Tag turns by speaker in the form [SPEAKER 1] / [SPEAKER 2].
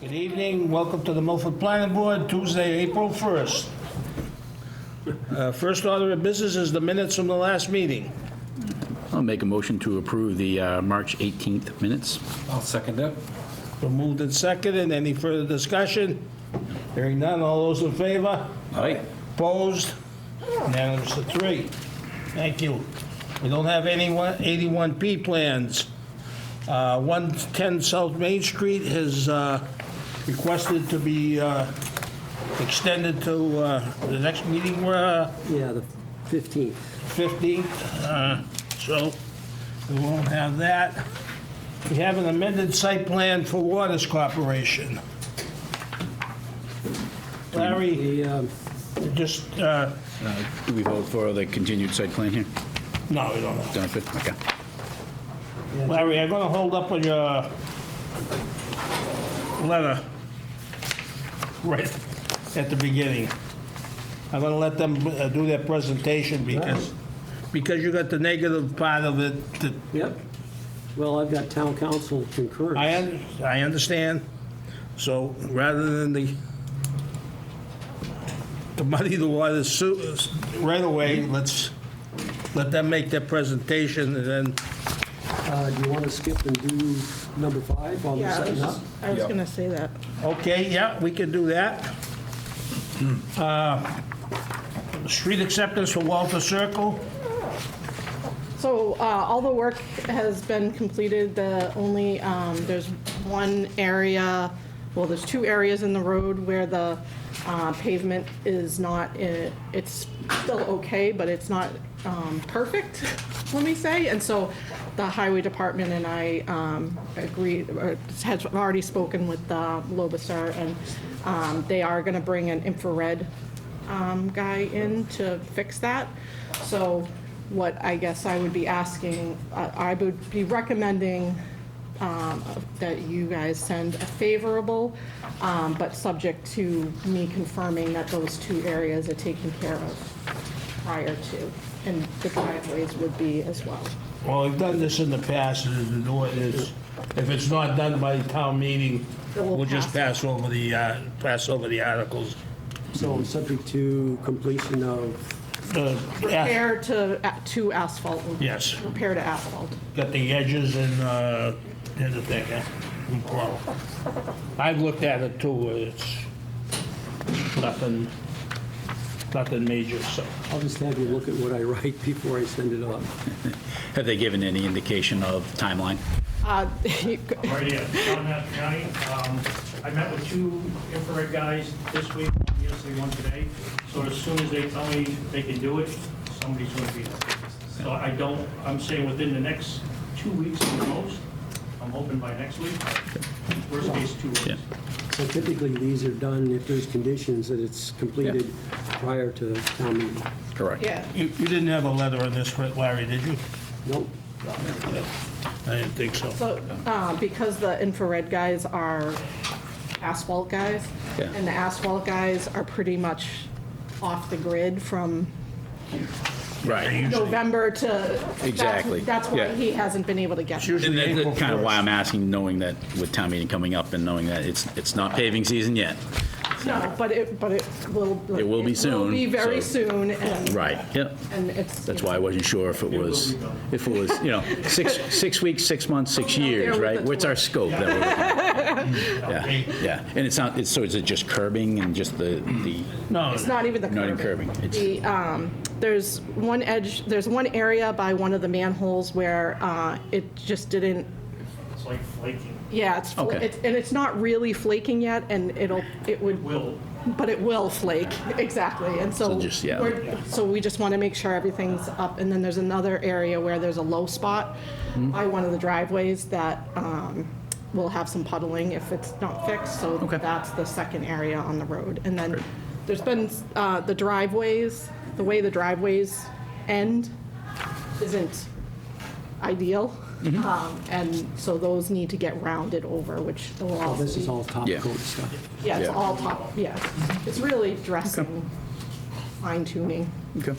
[SPEAKER 1] Good evening, welcome to the Milford Planning Board, Tuesday, April 1st. Uh, First order of business is the minutes from the last meeting.
[SPEAKER 2] I'll make a motion to approve the uh, March 18th minutes.
[SPEAKER 3] I'll second it.
[SPEAKER 1] Been moved and seconded, any further discussion? Hearing none, all those in favor?
[SPEAKER 2] Aye.
[SPEAKER 1] Opposed? Unanimous of three. Thank you. We don't have any one- 81P plans. Uh, 110 South Main Street has uh, requested to be uh, extended to uh, the next meeting, uh,
[SPEAKER 4] Yeah, the 15th.
[SPEAKER 1] 15th, uh, so we won't have that. We have an amended site plan for Waters Corporation. Larry,
[SPEAKER 4] The, um,
[SPEAKER 1] just, uh,
[SPEAKER 2] Uh, Do we vote for the continued site plan here?
[SPEAKER 1] no, we don't know.
[SPEAKER 2] Done, good, okay.
[SPEAKER 1] Larry, I'm gonna hold up on your letter right at the beginning. I'm gonna let them uh, do their presentation because, because you got the negative part of it that
[SPEAKER 4] Yep. Well, I've got town council
[SPEAKER 1] I,
[SPEAKER 4] concurrence.
[SPEAKER 1] un- I understand, so rather than the, to muddy the waters so- right away, let's let them make their presentation and then
[SPEAKER 4] Uh, Do you want to skip and do number five while we're
[SPEAKER 5] Yeah, I was
[SPEAKER 4] setting up?
[SPEAKER 5] just- I was gonna say that.
[SPEAKER 1] Okay, yeah, we can do that. Uh, Street acceptance for Walter Circle,
[SPEAKER 5] So uh, all the work has been completed, the only, um, there's one area, well, there's two areas in the road where the uh, pavement is not, i- it's still okay, but it's not um, perfect, let me say. And so the highway department and I um, agreed, or has already spoken with uh, Lobasar, and um, they are going to bring an infrared um, guy in to fix that. So what I guess I would be asking, uh, I would be recommending um, that you guys send a favorable, um, but subject to me confirming that those two areas are taken care of prior to, and the driveways would be as well.
[SPEAKER 1] well, we've done this in the past, and the door is, if it's not done by town meeting,
[SPEAKER 5] Then we'll
[SPEAKER 1] we'll just
[SPEAKER 5] pass
[SPEAKER 1] pass over the, uh, pass over the articles.
[SPEAKER 4] So subject to completion of,
[SPEAKER 1] Uh, yeah,
[SPEAKER 5] Repair to, a- to asphalt. would-
[SPEAKER 1] Yes.
[SPEAKER 5] Repair to asphalt.
[SPEAKER 1] Got the edges and, uh, and the thing, yeah. Well, I've looked at it too, it's nothing, nothing major, so.
[SPEAKER 4] I'll just have you look at what I write before I send it up.
[SPEAKER 2] Have they given any indication of timeline?
[SPEAKER 5] Uh,
[SPEAKER 6] Right here, John Mastriani. Um, I met with two infrared guys this week, one yesterday, one today. So as soon as they tell me they can do it, somebody's going to be there. So I don't, I'm saying within the next two weeks at the most. I'm hoping by next week. Worst case, two
[SPEAKER 2] Yeah.
[SPEAKER 6] weeks.
[SPEAKER 4] So typically, these are done if there's conditions that it's completed prior to town meeting.
[SPEAKER 2] Correct.
[SPEAKER 5] Yeah.
[SPEAKER 1] You, you didn't have a letter on this, Larry, did you?
[SPEAKER 4] Nope.
[SPEAKER 1] I didn't think so.
[SPEAKER 5] So, uh, because the infrared guys are asphalt guys,
[SPEAKER 2] Yeah.
[SPEAKER 5] and the asphalt guys are pretty much off the grid from
[SPEAKER 2] Right.
[SPEAKER 5] November to. that's-
[SPEAKER 2] Exactly,
[SPEAKER 5] That's why
[SPEAKER 2] yeah.
[SPEAKER 5] he hasn't been able to get. them.
[SPEAKER 2] And
[SPEAKER 1] Usually April
[SPEAKER 2] that's kind of why I'm
[SPEAKER 1] 1st.
[SPEAKER 2] asking, knowing that with town meeting coming up and knowing that it's, it's not paving season yet.
[SPEAKER 5] No, but it, but it will.
[SPEAKER 2] It will be
[SPEAKER 5] It will
[SPEAKER 2] soon,
[SPEAKER 5] be very
[SPEAKER 2] so-
[SPEAKER 5] soon, and.
[SPEAKER 2] Right, yep.
[SPEAKER 5] And it's.
[SPEAKER 2] That's why I wasn't sure if it was,
[SPEAKER 6] be done.
[SPEAKER 2] if it was, you know, six, six weeks, six months, six
[SPEAKER 5] Out there
[SPEAKER 2] years,
[SPEAKER 5] with
[SPEAKER 2] right?
[SPEAKER 5] the
[SPEAKER 2] What's our
[SPEAKER 5] torch.
[SPEAKER 2] scope that we're looking at? Yeah, yeah. And it's not, it's, so is it just curbing and just the, the,
[SPEAKER 1] No,
[SPEAKER 5] It's not even the
[SPEAKER 2] not
[SPEAKER 5] curving.
[SPEAKER 2] even curbing? It's-
[SPEAKER 5] The, um, there's one edge, there's one area by one of the manholes where, uh, it just didn't
[SPEAKER 6] It's like flaking.
[SPEAKER 5] Yeah, it's, fl-
[SPEAKER 2] Okay.
[SPEAKER 5] it's, and it's not really flaking yet, and it'll, it would,
[SPEAKER 6] Will,
[SPEAKER 5] but it will flake, exactly, and so.
[SPEAKER 2] So just- yeah.
[SPEAKER 5] we're- So we just want to make sure everything's up, and then there's another area where there's a low spot
[SPEAKER 2] Hmm.
[SPEAKER 5] by one of the driveways that, um, will have some puddling if it's not fixed, so that's the second area on the road. And then there's been, uh, the driveways, the way the driveways end isn't ideal. Um, And so those need to get rounded over, which will
[SPEAKER 4] Oh,
[SPEAKER 5] all
[SPEAKER 4] This is
[SPEAKER 5] be-
[SPEAKER 4] all top
[SPEAKER 2] Yeah.
[SPEAKER 4] coat stuff.
[SPEAKER 5] Yeah, it's
[SPEAKER 2] Yeah.
[SPEAKER 5] all top, yeah. It's really dressing, fine tuning.
[SPEAKER 2] Okay.